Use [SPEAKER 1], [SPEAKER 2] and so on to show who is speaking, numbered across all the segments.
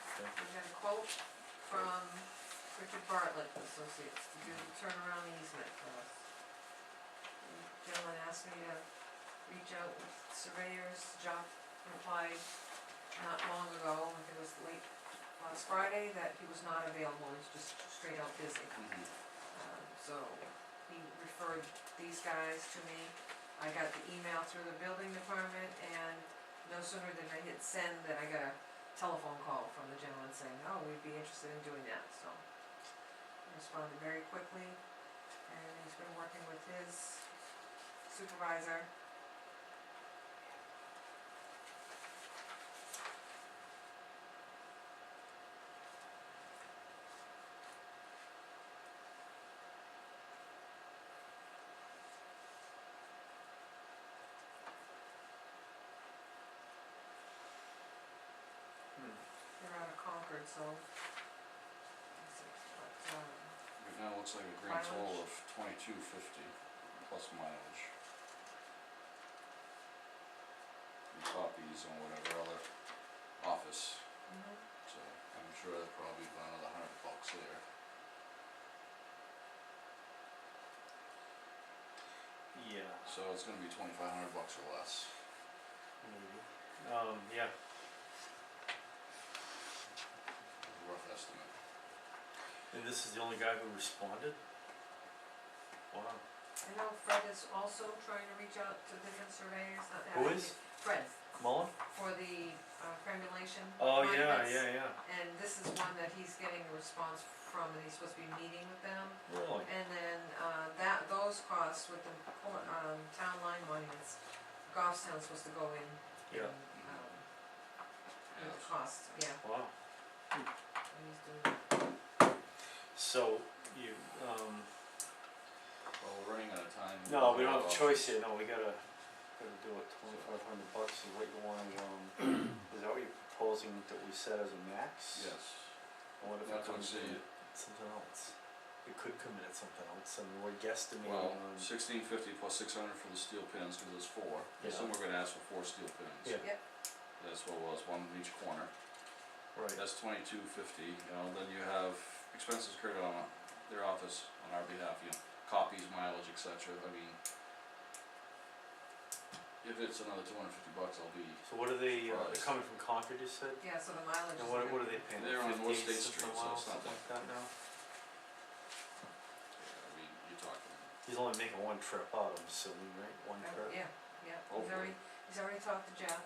[SPEAKER 1] We got a quote from Richard Bartlett and Associates to do the turnaround easement for us. The Gentleman asked me to reach out with surveyors, Jock replied not long ago, I think it was late last Friday, that he was not available, he's just straight out busy. Um, So he referred these guys to me. I got the email through the building department and no sooner did I hit send than I got a telephone call from the gentleman saying, oh, we'd be interested in doing that, so. I Responded very quickly and he's been working with his supervisor.
[SPEAKER 2] Hmm.
[SPEAKER 1] They're out of Concord, so. let's see, but, um,
[SPEAKER 3] Right now, it looks like a grand total
[SPEAKER 1] Mileage?
[SPEAKER 3] of twenty-two fifty plus mileage. And copies and whatever other office,
[SPEAKER 1] mhm.
[SPEAKER 3] so I'm sure they're probably about another hundred bucks there.
[SPEAKER 2] Yeah,
[SPEAKER 3] So it's gonna be twenty-five hundred bucks or less.
[SPEAKER 2] maybe. Um, yeah,
[SPEAKER 3] rough estimate.
[SPEAKER 2] and this is the only guy who responded? Wow.
[SPEAKER 1] I know Fred is also trying to reach out to different surveyors, not that.
[SPEAKER 2] Who
[SPEAKER 1] I
[SPEAKER 2] is?
[SPEAKER 1] think- Fred,
[SPEAKER 2] Mullen?
[SPEAKER 1] for the uh, cremulation.
[SPEAKER 2] Oh, yeah,
[SPEAKER 1] monuments,
[SPEAKER 2] yeah, yeah.
[SPEAKER 1] And this is one that he's getting a response from, and he's supposed to be meeting with them.
[SPEAKER 2] Really?
[SPEAKER 1] And then, uh, that, those costs with the, cor- um, town line monuments, Goffstown's supposed to go in. and,
[SPEAKER 2] Yeah.
[SPEAKER 1] Um, with the
[SPEAKER 3] Yes.
[SPEAKER 1] cost, yeah,
[SPEAKER 2] Wow.
[SPEAKER 1] and he's doing that.
[SPEAKER 2] So you, um,
[SPEAKER 3] Well, we're running out of time.
[SPEAKER 2] no, we
[SPEAKER 3] We'll
[SPEAKER 2] don't have a
[SPEAKER 3] go off.
[SPEAKER 2] choice here, no, we gotta, gotta do it, twenty-five hundred bucks is what you want, um, is that what you're proposing that we set as a max?
[SPEAKER 3] Yes,
[SPEAKER 2] Or what if it
[SPEAKER 3] that's what I'm
[SPEAKER 2] comes in
[SPEAKER 3] saying,
[SPEAKER 2] at something else? It could come in at something else, and we're guesstimating
[SPEAKER 3] well,
[SPEAKER 2] on,
[SPEAKER 3] sixteen fifty plus six hundred for the steel pins, cause there's four,
[SPEAKER 2] Yeah.
[SPEAKER 3] so we're gonna ask for four steel pins.
[SPEAKER 2] Yeah.
[SPEAKER 1] Yep.
[SPEAKER 3] That's what it was, one in each corner.
[SPEAKER 2] right,
[SPEAKER 3] That's twenty-two fifty, you know, then you have expenses incurred on their office on our behalf, you know, copies, mileage, et cetera, I mean. If it's another two hundred fifty bucks, I'll be,
[SPEAKER 2] so what are they, uh, they're
[SPEAKER 3] Price.
[SPEAKER 2] coming from Concord, you said?
[SPEAKER 1] Yeah, so the mileage is.
[SPEAKER 2] And what,
[SPEAKER 1] good.
[SPEAKER 2] what are they paying,
[SPEAKER 3] They're on North
[SPEAKER 2] fifty,
[SPEAKER 3] State
[SPEAKER 2] something
[SPEAKER 3] Street,
[SPEAKER 2] a
[SPEAKER 3] so
[SPEAKER 2] mile,
[SPEAKER 3] it's not
[SPEAKER 2] something like that now?
[SPEAKER 3] I mean, you're talking,
[SPEAKER 2] He's only making one trip out, I'm assuming, right, one
[SPEAKER 1] Uh, Yeah,
[SPEAKER 2] trip?
[SPEAKER 1] yeah,
[SPEAKER 2] Oh,
[SPEAKER 1] he's already, he's already talked to Jeff,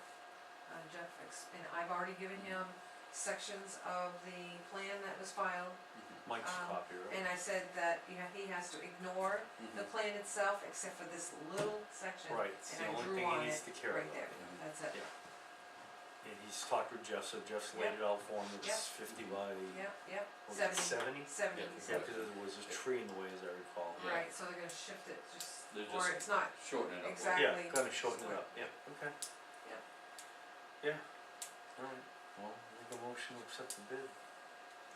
[SPEAKER 1] uh, Jeff, ex- and I've already given him sections of the plan that was filed,
[SPEAKER 2] Mike's
[SPEAKER 1] Um,
[SPEAKER 2] copy, right?
[SPEAKER 1] and I said that, you know, he has to ignore the
[SPEAKER 3] Mhm.
[SPEAKER 1] plan itself, except for this little section.
[SPEAKER 2] Right, it's
[SPEAKER 1] and
[SPEAKER 2] the
[SPEAKER 1] I
[SPEAKER 2] only
[SPEAKER 1] drew
[SPEAKER 2] thing
[SPEAKER 1] on
[SPEAKER 2] he needs
[SPEAKER 1] it
[SPEAKER 2] to care
[SPEAKER 1] right
[SPEAKER 2] about.
[SPEAKER 1] there.
[SPEAKER 3] Mhm.
[SPEAKER 1] That's it,
[SPEAKER 2] Yeah. And he's talked with Jeff, so Jeff's laid it out for him,
[SPEAKER 1] Yep.
[SPEAKER 2] it's fifty by,
[SPEAKER 1] yep, yep,
[SPEAKER 2] what was it,
[SPEAKER 1] seventy, seventy,
[SPEAKER 2] seventy? Yeah,
[SPEAKER 3] Yeah,
[SPEAKER 1] so,
[SPEAKER 2] cause there was a tree in the way, as I recall.
[SPEAKER 3] yeah.
[SPEAKER 1] right, so they're gonna shift it, just,
[SPEAKER 3] They're
[SPEAKER 1] or it's
[SPEAKER 3] just-
[SPEAKER 1] not,
[SPEAKER 3] shorten it up. a little.
[SPEAKER 1] Exact-
[SPEAKER 2] Yeah,
[SPEAKER 1] Exactly.
[SPEAKER 2] kinda shorten it up, yeah, okay.
[SPEAKER 1] Yep.
[SPEAKER 2] Yeah, alright, well, make a motion to accept the bid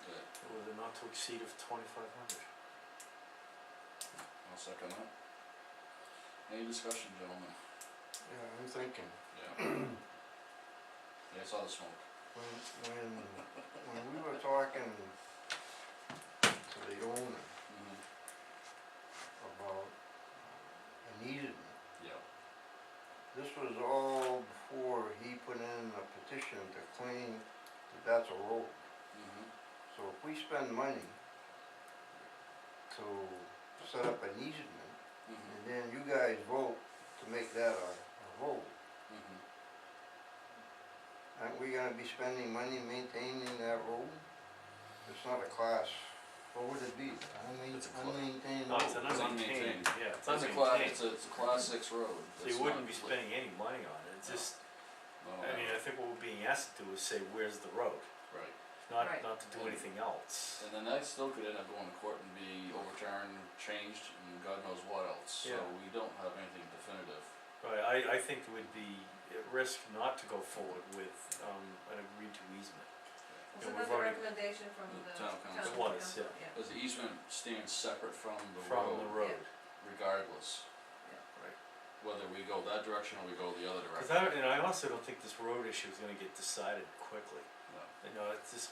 [SPEAKER 3] Good.
[SPEAKER 2] with a not to exceed of twenty-five hundred.
[SPEAKER 3] I'll second that. Any discussion, gentlemen?
[SPEAKER 4] Yeah, I'm thinking,
[SPEAKER 3] Yeah. Yeah, I saw the smoke.
[SPEAKER 4] when, when, when we were talking to the owner
[SPEAKER 3] Mm-hmm.
[SPEAKER 4] about uh, an easement,
[SPEAKER 3] Yeah.
[SPEAKER 4] this was all before he put in a petition to claim that that's a road.
[SPEAKER 3] Mm-hmm.
[SPEAKER 4] So if we spend money to set up an easement,
[SPEAKER 3] Mm-hmm.
[SPEAKER 4] and then you guys vote to make that a, a road,
[SPEAKER 3] Mm-hmm.
[SPEAKER 4] aren't we gonna be spending money maintaining that road? It's not a class, what would it be,
[SPEAKER 3] It's a
[SPEAKER 4] unmaintained,
[SPEAKER 2] No,
[SPEAKER 3] cla-
[SPEAKER 4] unmaintained
[SPEAKER 2] Oh, it's
[SPEAKER 4] road?
[SPEAKER 2] an
[SPEAKER 3] It's
[SPEAKER 2] unmaintained,
[SPEAKER 3] unmaintained.
[SPEAKER 2] yeah, it's
[SPEAKER 3] That's a class,
[SPEAKER 2] unmaintained,
[SPEAKER 3] it's a, it's a class six road.
[SPEAKER 2] so
[SPEAKER 3] It's
[SPEAKER 2] you wouldn't
[SPEAKER 3] not
[SPEAKER 2] be
[SPEAKER 3] like- Oh,
[SPEAKER 2] spending any money on it, it's
[SPEAKER 3] No.
[SPEAKER 2] just,
[SPEAKER 3] No,
[SPEAKER 2] I mean, I think what we're being asked to do is say, where's the road?
[SPEAKER 3] Right,
[SPEAKER 2] Not,
[SPEAKER 1] Right.
[SPEAKER 2] not to do
[SPEAKER 3] And-
[SPEAKER 2] anything else.
[SPEAKER 3] and then that still could end up going to court and be overturned, changed, and God knows what else, so
[SPEAKER 2] Yeah.
[SPEAKER 3] we don't have anything definitive.
[SPEAKER 2] Right, I, I think it would be at risk not to go forward with, um, an agreed to easement.
[SPEAKER 1] was it
[SPEAKER 2] Yeah, we've
[SPEAKER 1] not the
[SPEAKER 2] already-
[SPEAKER 1] recommendation from
[SPEAKER 3] The
[SPEAKER 1] the town
[SPEAKER 3] town
[SPEAKER 1] council?
[SPEAKER 3] council.
[SPEAKER 2] It was, yeah.
[SPEAKER 3] Because the easement stands separate from the
[SPEAKER 2] From the
[SPEAKER 3] road
[SPEAKER 2] road,
[SPEAKER 3] regardless,
[SPEAKER 2] right.
[SPEAKER 3] whether we go that direction or we go the other
[SPEAKER 2] Cause
[SPEAKER 3] direction.
[SPEAKER 2] I, don't- and I also don't think this road issue is gonna get decided quickly.
[SPEAKER 3] No.
[SPEAKER 2] You know, it's just